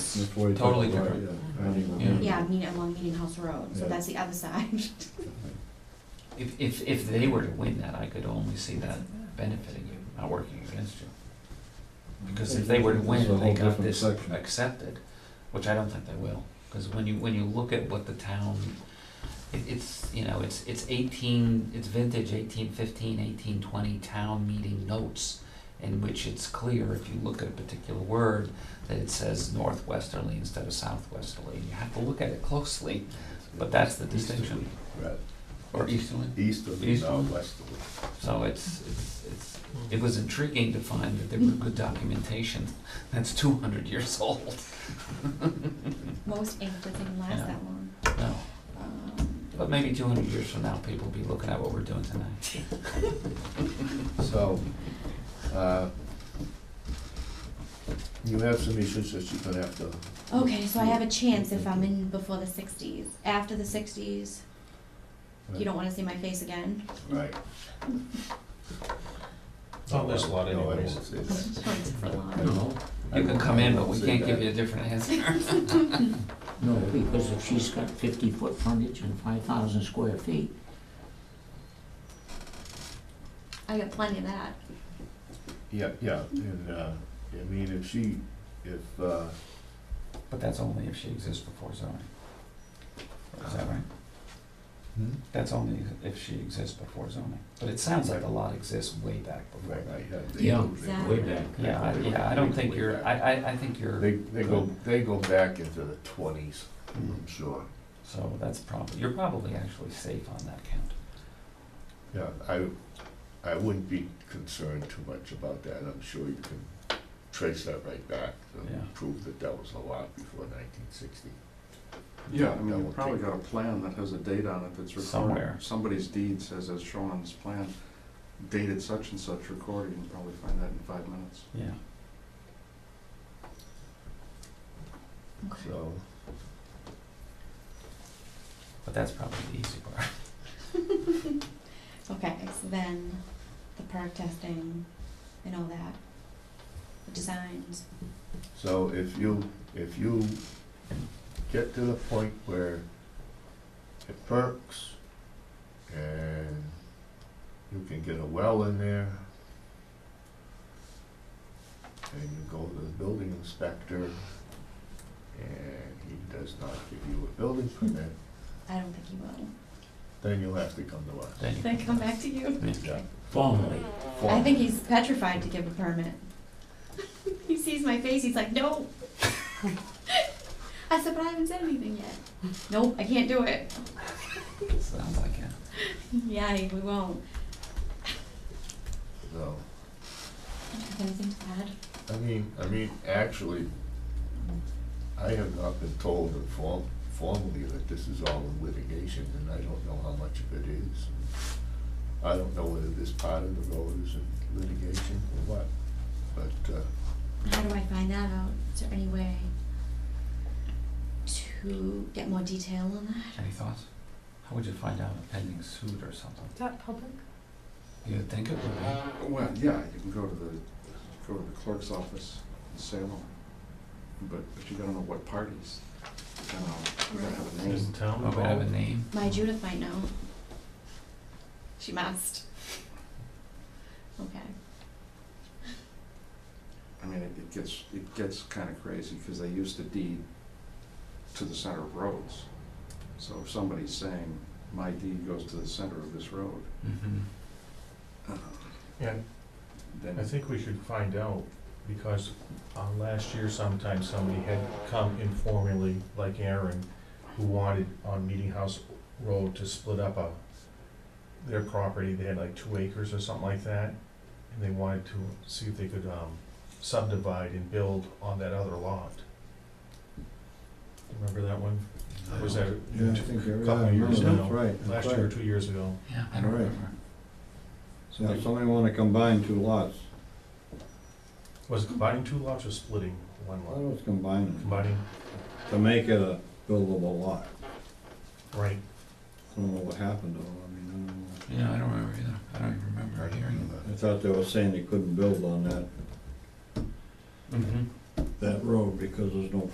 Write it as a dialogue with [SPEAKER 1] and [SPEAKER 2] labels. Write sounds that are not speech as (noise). [SPEAKER 1] it's
[SPEAKER 2] Before you
[SPEAKER 1] totally
[SPEAKER 2] talk about
[SPEAKER 1] different.
[SPEAKER 2] it, yeah.
[SPEAKER 1] Yeah.
[SPEAKER 3] Yeah, meet along Meeting House Road, so
[SPEAKER 2] Yeah.
[SPEAKER 3] that's the other (laughs) side.
[SPEAKER 1] If, if, if they were to win that, I could only see that benefiting you, not working against you. Because if they were to
[SPEAKER 2] It's a
[SPEAKER 1] win, they
[SPEAKER 2] whole
[SPEAKER 1] got
[SPEAKER 2] different
[SPEAKER 1] this
[SPEAKER 2] section.
[SPEAKER 1] accepted, which I don't think they will. Because when you, when you look at what the town, it, it's, you know, it's, it's eighteen, it's vintage eighteen fifteen, eighteen twenty town meeting notes in which it's clear, if you look at a particular word, that it says northwesterly instead of southwesterly. You have to look at it closely, but that's the distinction.
[SPEAKER 4] Right.
[SPEAKER 1] Or easterly.
[SPEAKER 4] Easterly,
[SPEAKER 1] Easterly.
[SPEAKER 4] no, westerly.
[SPEAKER 1] So it's, it's, it's, it was intriguing to find that there were good documentation that's two hundred years old.
[SPEAKER 3] Most ink doesn't
[SPEAKER 1] Yeah.
[SPEAKER 3] last that long.
[SPEAKER 1] No,
[SPEAKER 3] Um,
[SPEAKER 1] but maybe two hundred years from now, people will be looking at what we're doing tonight.
[SPEAKER 4] So, uh, you have some issues that you're gonna have to.
[SPEAKER 3] Okay, so I have a chance if I'm in before the sixties. After the sixties, you don't wanna see my face again. (laughs)
[SPEAKER 4] Right.
[SPEAKER 5] Not this lot
[SPEAKER 4] No, I won't
[SPEAKER 5] anyways.
[SPEAKER 4] say that. (laughs)
[SPEAKER 3] It's a lot.
[SPEAKER 6] No,
[SPEAKER 1] You can come in, but we can't give you a different answer.
[SPEAKER 6] no, because if she's got fifty foot frontage and five thousand square feet,
[SPEAKER 3] I got plenty of that.
[SPEAKER 4] Yeah, yeah, and, uh, I mean, if she, if, uh,
[SPEAKER 1] But that's only if she exists before zoning. Is that right?
[SPEAKER 4] Hmm?
[SPEAKER 1] That's only if she exists before zoning. But it sounds like a lot exists way back before
[SPEAKER 4] right,
[SPEAKER 1] that.
[SPEAKER 4] right, yeah. they
[SPEAKER 6] Yeah.
[SPEAKER 4] go- they go
[SPEAKER 3] Exactly.
[SPEAKER 4] back.
[SPEAKER 1] Yeah, I- yeah, I don't think you're, I, I, I think you're.
[SPEAKER 4] They, they go, they go back into the twenties,
[SPEAKER 1] Hmm.
[SPEAKER 4] I'm sure.
[SPEAKER 1] So that's probably, you're probably actually safe on that count.
[SPEAKER 4] Yeah, I, I wouldn't be concerned too much about that, I'm sure you can trace that right back,
[SPEAKER 1] Yeah.
[SPEAKER 4] and prove that that was a lot before nineteen sixty.
[SPEAKER 7] Yeah, I mean, you've probably got a plan that has a date on it that's
[SPEAKER 1] Somewhere.
[SPEAKER 7] recorded. Somebody's deed says, as shown on this plan, dated such and such, recorded, you can probably find that in five minutes.
[SPEAKER 1] Yeah.
[SPEAKER 3] Okay.
[SPEAKER 4] So,
[SPEAKER 1] But that's probably the easy part.
[SPEAKER 3] Okay, so then the perk testing and all that, the designs.
[SPEAKER 4] so if you, if you get to the point where it perks and you can get a well in there and you go to the building inspector and he does not give you a building permit,
[SPEAKER 3] I don't think you will.
[SPEAKER 4] then you'll have to come to us.
[SPEAKER 1] Then you-
[SPEAKER 3] Then come back to you.
[SPEAKER 4] Yeah.
[SPEAKER 6] formally,
[SPEAKER 3] I think he's petrified to give a permit. (laughs) he sees my face, he's like, (laughs) no. I said, but I haven't said anything yet. Nope, I can't do it.
[SPEAKER 1] (laughs)
[SPEAKER 3] (laughs)
[SPEAKER 1] Sounds like it.
[SPEAKER 3] Yeah, we won't.
[SPEAKER 4] So,
[SPEAKER 3] Do you have anything to add?
[SPEAKER 4] I mean, I mean, actually, I have not been told inform- formally that this is all in litigation, and I don't know how much of it is. I don't know whether this part of the road is in litigation or what, but, uh,
[SPEAKER 3] How do I find that out? Is there any way to get more detail on that?
[SPEAKER 1] Any thoughts? How would you find out a pending suit or something?
[SPEAKER 8] Is that public?
[SPEAKER 1] You'd think it would
[SPEAKER 4] Uh,
[SPEAKER 1] be.
[SPEAKER 7] Well, yeah, you can go to the, go to the clerk's office in Salem, but, but you gotta know what parties. You know, you gotta have a
[SPEAKER 5] Is
[SPEAKER 7] name.
[SPEAKER 5] the town
[SPEAKER 1] Oh, we have a
[SPEAKER 5] involved?
[SPEAKER 1] name?
[SPEAKER 3] My Judith might know. She must. (laughs) Okay.
[SPEAKER 7] I mean, it, it gets, it gets kinda crazy, cause they used to deed to the center of roads. So if somebody's saying, my deed goes to the center of this road,
[SPEAKER 1] Mm-hmm.
[SPEAKER 7] uh,
[SPEAKER 5] And
[SPEAKER 7] then.
[SPEAKER 5] I think we should find out, because uh, last year sometime somebody had come informally, like Aaron, who wanted on Meeting House Road to split up a, their property, they had like two acres or something like that, and they wanted to see if they could um, subdivide and build on that other lot. Remember that one? Or Was that a
[SPEAKER 2] Yeah, I think, you're- yeah,
[SPEAKER 5] couple
[SPEAKER 2] I
[SPEAKER 5] of years
[SPEAKER 2] remember,
[SPEAKER 5] ago?
[SPEAKER 2] that's right, that's
[SPEAKER 5] Last year or
[SPEAKER 2] right.
[SPEAKER 5] two years ago.
[SPEAKER 1] Yeah, I don't
[SPEAKER 2] All right.
[SPEAKER 1] remember.
[SPEAKER 2] So if somebody wanna combine two lots,
[SPEAKER 5] Was it combining two lots or splitting one
[SPEAKER 2] I
[SPEAKER 5] lot?
[SPEAKER 2] was combining,
[SPEAKER 5] Combining,
[SPEAKER 2] to make it a buildable lot.
[SPEAKER 5] right,
[SPEAKER 2] I don't know what happened though, I mean, I don't know.
[SPEAKER 1] Yeah, I don't remember either. I don't even remember hearing
[SPEAKER 2] I thought they were saying they couldn't build on that,
[SPEAKER 1] it. Mm-hmm.
[SPEAKER 2] that road because there's no